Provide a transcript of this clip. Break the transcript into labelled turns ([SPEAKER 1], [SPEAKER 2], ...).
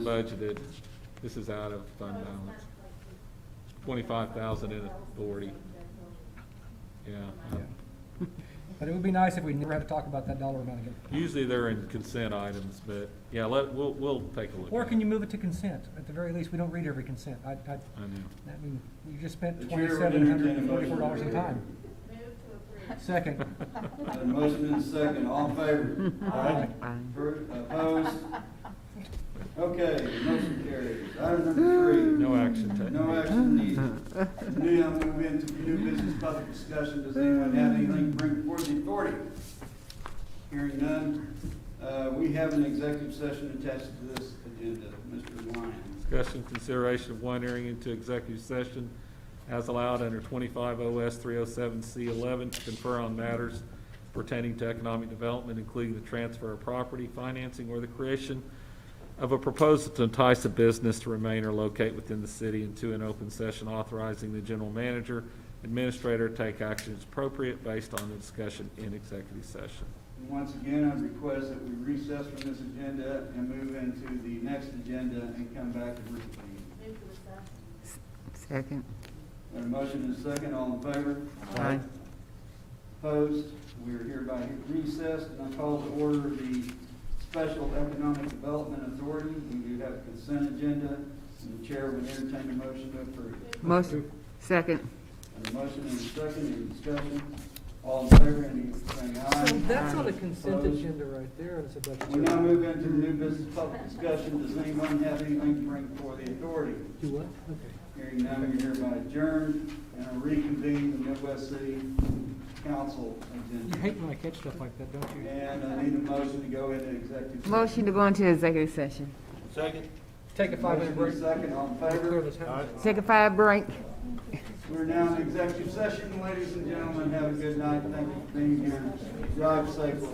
[SPEAKER 1] budgeted, this is out of fund balance, twenty-five thousand in authority. Yeah.
[SPEAKER 2] But it would be nice if we never had to talk about that dollar amount again.
[SPEAKER 1] Usually they're in consent items, but yeah, let, we'll, we'll take a look.
[SPEAKER 2] Or
[SPEAKER 1] at
[SPEAKER 2] can
[SPEAKER 1] it.
[SPEAKER 2] you move it to consent? At the very least, we don't read every consent. I, I,
[SPEAKER 1] I know.
[SPEAKER 2] I mean, you just spent
[SPEAKER 3] The chair would
[SPEAKER 2] twenty-seven hundred and forty-four
[SPEAKER 3] entertain a
[SPEAKER 2] dollars
[SPEAKER 3] motion
[SPEAKER 2] in
[SPEAKER 3] to
[SPEAKER 2] time. Second.
[SPEAKER 3] Got a motion and a second, all in favor?
[SPEAKER 2] Aye.
[SPEAKER 3] Appro- Opposed? Okay, motion carries. Item number three.
[SPEAKER 1] No action taken.
[SPEAKER 3] No action needed. New, I'm gonna move into new business public discussion. Does anyone have anything to bring forth the authority? Hearing none, uh, we have an executive session attached to this agenda. Mr. Lyons.
[SPEAKER 1] Discussion, consideration of one entering into executive session as allowed under twenty-five OS three oh seven C eleven to confer on matters pertaining to economic development, including the transfer of property, financing, or the creation of a proposal to entice a business to remain or locate within the city and to an open session authorizing the general manager, administrator to take action as appropriate based on the discussion in executive session.
[SPEAKER 3] And Once again, I request that we recess from this agenda and move into the next agenda and come back to reconvene.
[SPEAKER 4] Second.
[SPEAKER 3] Got a motion and a second, all in favor?
[SPEAKER 4] Aye.
[SPEAKER 3] Opposed? We are hereby recessed, and I call to order the Special Economic Development Authority. We do have a consent agenda, and the chair would entertain a motion to approve.
[SPEAKER 4] Motion, second.
[SPEAKER 3] Got a motion and a second, any discussion? All in favor, any saying aye?
[SPEAKER 5] So that's on a consent
[SPEAKER 3] Opposed?
[SPEAKER 5] agenda right there, and it's a budget.
[SPEAKER 3] We now move into the new business public discussion. Does anyone have anything to bring for the authority?
[SPEAKER 5] Do what? Okay.
[SPEAKER 3] Hearing none, you're hereby adjourned, and I reconvene the Midwest City Council
[SPEAKER 2] You
[SPEAKER 3] agenda.
[SPEAKER 2] hate when I catch stuff like that, don't you?
[SPEAKER 3] And I need a motion to go into executive. session.
[SPEAKER 4] Motion to go into executive session.
[SPEAKER 2] Take a five-minute break.
[SPEAKER 3] Motion and Second, all in
[SPEAKER 2] Clear
[SPEAKER 3] favor?
[SPEAKER 2] this house.
[SPEAKER 4] Take a five break.
[SPEAKER 3] We're now in executive session, ladies and gentlemen, have a good night, thank you for being here, drive safely.